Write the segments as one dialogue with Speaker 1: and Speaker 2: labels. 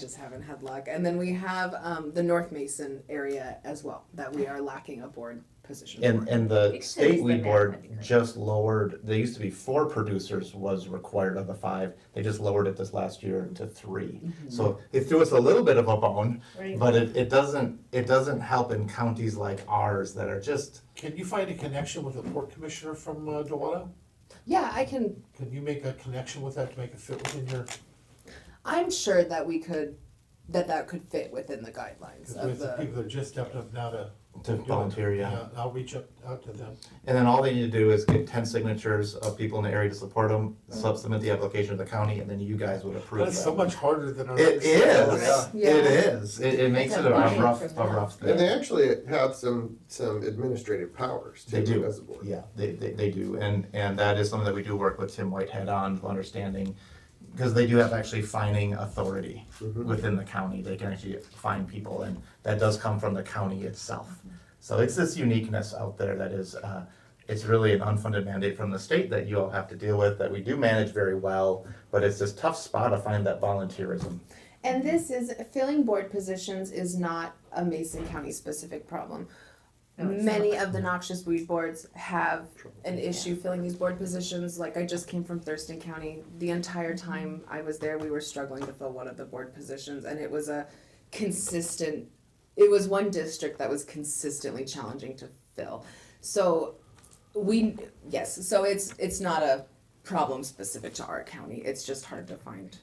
Speaker 1: just haven't had luck. And then we have um, the North Mason area as well that we are lacking a board position.
Speaker 2: And,
Speaker 1: for.
Speaker 2: and the
Speaker 3: Extends
Speaker 2: state
Speaker 3: the
Speaker 2: weed
Speaker 3: map, that'd
Speaker 2: board
Speaker 3: be great.
Speaker 2: just lowered, they used to be four producers was required of the five. They just lowered it this last year to three. So it threw us a little bit of a bone,
Speaker 3: Mm-hmm. Right.
Speaker 2: but it, it doesn't, it doesn't help in counties like ours that are just,
Speaker 4: Can you find a connection with the port commissioner from uh, Duwato?
Speaker 1: yeah, I can.
Speaker 4: Can you make a connection with that to make it fit within your,
Speaker 1: I'm sure that we could that that could fit within the guidelines
Speaker 4: because
Speaker 1: of
Speaker 4: there's the
Speaker 1: the.
Speaker 4: people that are just stepped up now to.
Speaker 2: to
Speaker 4: do it.
Speaker 2: volunteer, yeah.
Speaker 4: I'll reach up, out to them.
Speaker 2: And then all they need to do is get ten signatures of people in the area to support them, submit the application to the county, and then you guys would approve
Speaker 4: That's so
Speaker 2: it.
Speaker 4: much harder than our.
Speaker 2: It is,
Speaker 1: Yeah.
Speaker 2: it is. It, it makes it a
Speaker 3: It's a
Speaker 2: rough,
Speaker 3: buy-in
Speaker 2: a
Speaker 3: for
Speaker 2: rough
Speaker 5: And
Speaker 2: thing.
Speaker 5: they actually have some, some administrative powers
Speaker 2: They do.
Speaker 5: too, as a board.
Speaker 2: Yeah, they, they, they do, and, and that is something that we do work with Tim Whitehead on, understanding, because they do have actually fining authority within the county, they can actually fine people, and that does come from the county itself. So it's this uniqueness out there that is, uh, it's really an unfunded mandate from the state that you all have to deal with, that we do manage very well, but it's this tough spot to find that volunteerism.
Speaker 1: And this is filling board positions is not a Mason County specific problem.
Speaker 3: No, it's
Speaker 1: Many of the noxious weed boards have an issue filling these board positions. Like I just came from Thurston County. The entire time I was there, we were struggling to fill one of the board positions and it was a consistent, it was one district that was consistently challenging to fill. So we, yes, so it's, it's not a problem specific to our county. It's just hard to find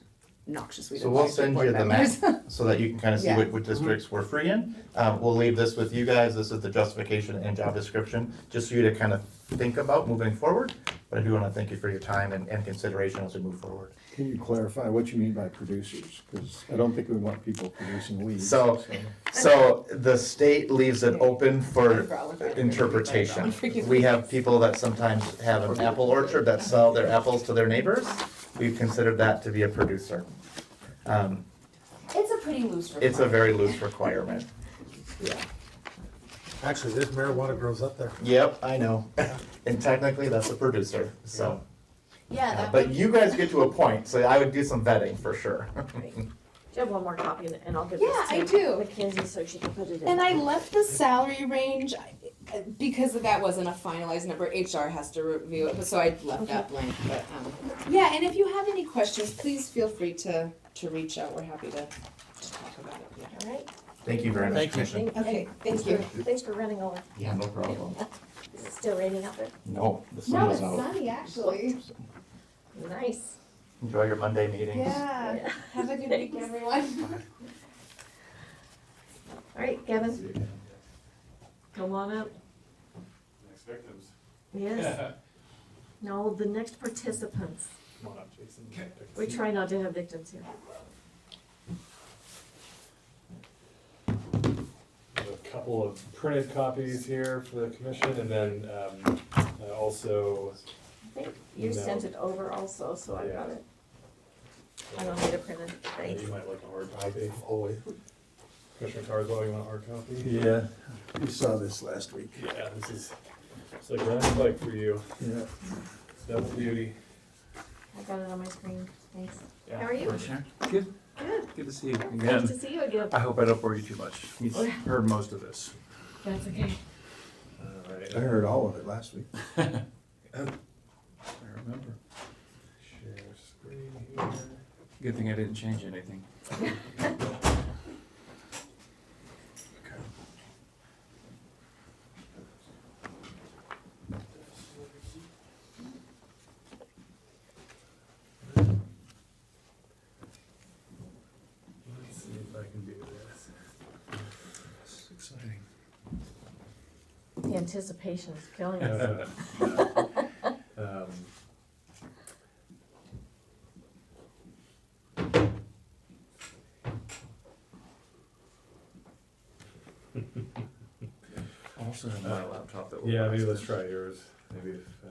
Speaker 1: noxious weed.
Speaker 2: So we'll
Speaker 1: advisory
Speaker 2: send
Speaker 1: board
Speaker 2: you the map
Speaker 1: members.
Speaker 2: so that you can kind of see
Speaker 1: Yeah.
Speaker 2: what, what districts we're free in. Um, we'll leave this with you guys. This is the justification and job description, just for you to kind of think about moving forward. But I do want to thank you for your time and, and consideration as we move forward.
Speaker 6: Can you clarify what you mean by producers? Because I don't think we want people producing weeds.
Speaker 2: So, so the state leaves it open for interpretation. We have people that sometimes have an apple orchard that sell their apples to their neighbors. We've considered that to be a producer. Um,
Speaker 3: It's a pretty loose requirement.
Speaker 2: it's a very loose requirement. Yeah.
Speaker 4: Actually, this marijuana grows up there.
Speaker 2: Yep, I know. And technically, that's a producer, so.
Speaker 3: Yeah,
Speaker 2: uh,
Speaker 3: that
Speaker 2: But
Speaker 3: one.
Speaker 2: you guys get to a point, so I would do some vetting for sure.
Speaker 3: Right. Do you have one more copy and- and I'll give
Speaker 1: Yeah,
Speaker 3: this to
Speaker 1: I do.
Speaker 3: Mackenzie so she can put it in.
Speaker 1: And I left the salary range I- because that wasn't a finalized number. HR has to review it, but so I left that blank. But um, yeah, and if you have any questions, please feel free to to reach out. We're happy to, to talk about it. Yeah.
Speaker 3: All right.
Speaker 2: Thank you very much,
Speaker 4: Thank you.
Speaker 2: Commissioner.
Speaker 1: Okay,
Speaker 3: and
Speaker 1: thank
Speaker 3: thanks
Speaker 1: you.
Speaker 3: for- Thanks for running over.
Speaker 2: Yeah, no problem.
Speaker 3: Is it still raining out there?
Speaker 2: No, the sun is out.
Speaker 1: sunny actually.
Speaker 3: Nice.
Speaker 2: Enjoy your Monday meetings.
Speaker 1: Uh,
Speaker 3: Yeah.
Speaker 1: Have a good week,
Speaker 3: Thanks.
Speaker 1: everyone.
Speaker 3: All right, Gavin. Come on up.
Speaker 7: Next victims.
Speaker 3: Yes. No, the next participants.
Speaker 7: Come on up, Jason.
Speaker 3: We try not to have victims here.
Speaker 7: There's A couple of printed copies here for the commission and then um, uh, also.
Speaker 3: I think you
Speaker 7: No.
Speaker 3: sent it over also, so I got
Speaker 7: Yeah.
Speaker 3: it. I don't need to print it.
Speaker 7: uh,
Speaker 3: Thanks.
Speaker 7: You might like a hard copy.
Speaker 4: I always.
Speaker 7: Commissioner Carswell, you want a hard copy?
Speaker 6: Yeah, we saw this last week.
Speaker 7: Yeah, this is, it's like running a bike for you.
Speaker 6: Yeah.
Speaker 7: It's double duty.
Speaker 3: I got it on my screen. Thanks.
Speaker 7: Yeah.
Speaker 3: How are you?
Speaker 8: Commissioner? Good,
Speaker 3: Good.
Speaker 8: good to see you
Speaker 3: Nice
Speaker 8: again.
Speaker 3: to see you Oh, again.
Speaker 8: I hope I don't bore you too much. You've heard most of this.
Speaker 3: That's okay.
Speaker 7: All right.
Speaker 6: I heard all of it last week.
Speaker 8: I remember.
Speaker 7: Share screen here.
Speaker 8: Good thing I didn't change anything.
Speaker 7: Let's see if I can do this.
Speaker 8: This is exciting.
Speaker 3: The anticipation is killing us.
Speaker 7: Uh, um,
Speaker 8: Also have my laptop that will.
Speaker 7: Yeah, maybe let's try yours. Maybe if, uh,